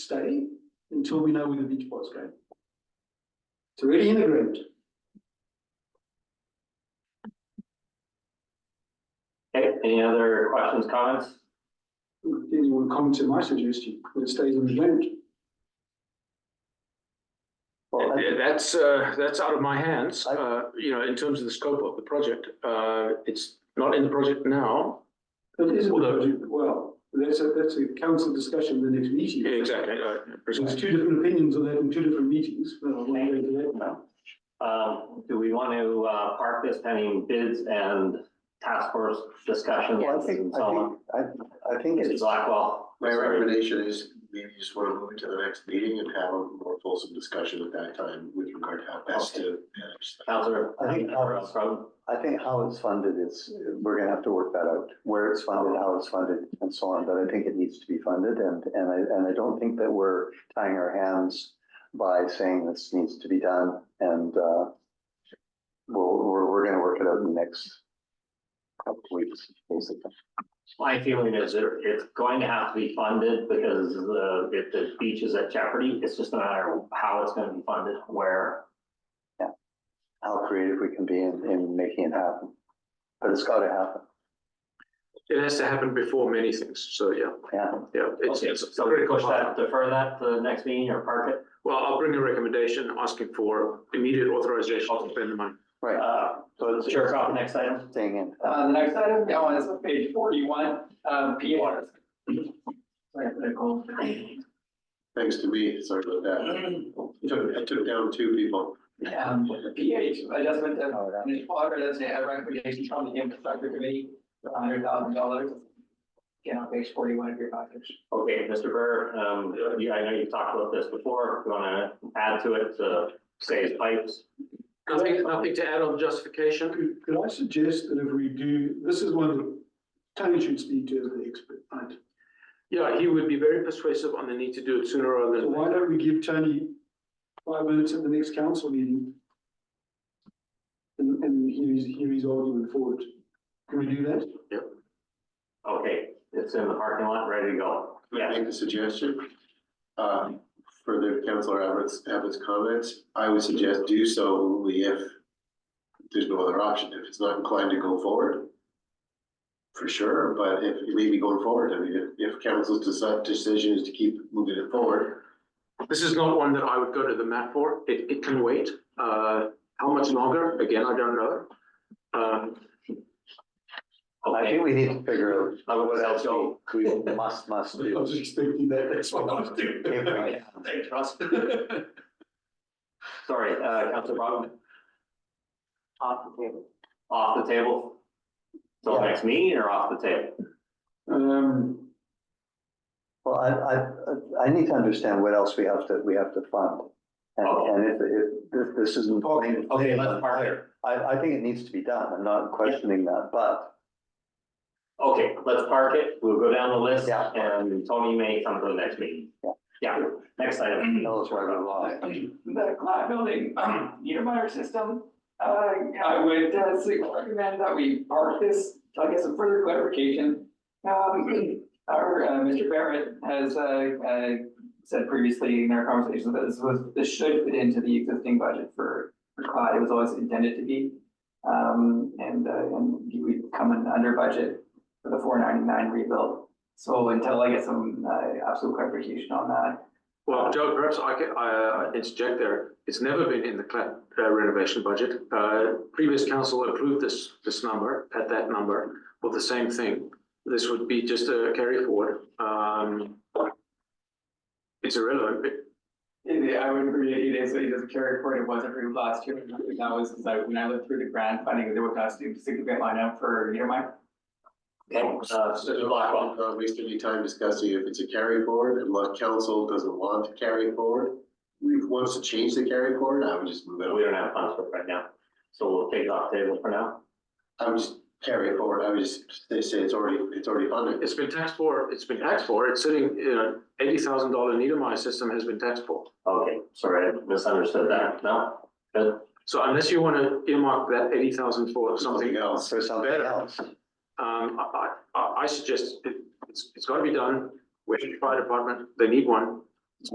stay until we know where the beach ball is going. It's already in the ground. Okay, any other questions, comments? Anyone comment to my suggestion, that it stays in the ground? Well, Yeah, That's, uh, that's out of my hands, uh, you know, in terms of the scope of the project. Uh, It's not in the project now. That is a Although- project, well, that's a, that's a council discussion in the next meeting. Yeah, Exactly. uh, There's precisely. two different opinions on that in two different meetings. but I won't go into that now. Um, do we want to, uh, park this pending bids and task force discussions Yeah, I and think, so I on? think, I, I think Mr. it's, Blackwell, My recommendation is maybe you just want to move it to the next meeting and have a more fulsome discussion at that time with regard to how best to manage. that. Counselor. I think- um, I think how it's funded is, we're gonna have to work that out, where it's funded, how it's funded, and so on, but I think it needs to be funded, and, and I, and I don't think that we're tying our hands by saying this needs to be done, and, uh, we'll, we're, we're gonna work it out in the next couple weeks, basically. My feeling is it, it's going to have to be funded because the, if the beach is at jeopardy, it's just no matter how it's gonna be funded, where. How creative we can be in, in making it happen, but it's gotta happen, It has to happen before many things. So, yeah, yeah. yeah. it's- Okay, it's a So we critical push that, part. defer that to the next meeting or park it? Well, I'll bring a recommendation asking for immediate authorization to spend the money. Right. Uh, So it's Sheriff, off the next item. Staying in. Uh, the next item, now is page forty-one, um, P one. Thanks to me, sorry about that. I took- I took down two people. Um, PH adjustment to, Oh, and it's water, that's a recommendation from the infrastructure committee for hundred thousand dollars. Again, on page forty-one of your package. Okay, Mr. Burr, um, you, I know you've talked about this before, you wanna add to it to save pipes? Nothing, nothing to add on justification? Could, could I suggest that if we do, this is one that Tony should speak to as the expert, right? Yeah, he would be very persuasive on the need to do it sooner rather So than. why don't we give Tony five minutes at the next council meeting? And, and hear his, hear his argument for it. Can we do that? Okay, it's in the parking lot, ready to go. Can I Yeah, make a suggestion? Uh, Further Councillor Abbott's, Abbott's comments, I would suggest do so only if there's no other option, if it's not inclined to go forward. For sure, but if it may be going forward, I mean, if, if council's deci- decision is to keep moving it forward, This is not one that I would go to the mat for. It, it can wait. Uh, how much longer? Again, I don't know. Um, I okay, think we need to figure I out would what say else so. we, we must, must I do. was expecting that, that's what I was doing. If we- Thanks, Russ. sorry, uh, Council Brown, Off the table. off the table? So Yeah. next meeting or off the table? Um, Well, I, I, I need to understand what else we have to, we have to fund. And, Okay. and if, if, this, this isn't. plain- Okay, let's park there. I, I think it needs to be done. I'm not questioning that, but Okay, let's park it, we'll go down the list Yeah. and Tony may come to the next meeting. Yeah. Yeah, next item. tell us where we're wrong. The cloud building, uh, um, Niedermeyer system, uh, I would uh, say- recommend that we park this, I guess, some further clarification. Um, our, uh, Mr. Barrett has, uh, uh, said previously in our conversations that this was, this should fit into the existing budget for, for cloud, it was always intended to be. Um, and, uh, and we come in under budget for the four ninety-nine rebuild. So until I get some, uh, absolute clarification on that, Well, Joe, perhaps I can, I uh, interject there. It's never been in the cla- uh, renovation budget. Uh, previous council approved this, this number, at that number, for the same thing. This would be just a carry forward. Um, it's irrelevant. It- Yeah, I would agree, it is, it is a carry forward, it was approved last year, and that was, as I- when I looked through the grant funding, there was not a significant line up for, you know, my. Okay, uh, Mr. Blackwell, I'm not wasting any time discussing if it's a carry forward, unless council doesn't want to carry forward. We wants to change the carry forward, I would just move it. we don't have funds for it right now, so we'll take it off the table for now. I would just carry it forward, I would just, they say it's already, it's already funded. It's been taxed for, it's been taxed for. It's sitting, you know, eighty thousand dollar Niedermeyer system has been taxed for. Okay, sorry, I misunderstood that, no? Good, So unless you want to earmark that eighty thousand for something else, else. For something Better. else. Um, I, I, I- I suggest it, it's, it's gotta be done. Where's the fire department? They need one.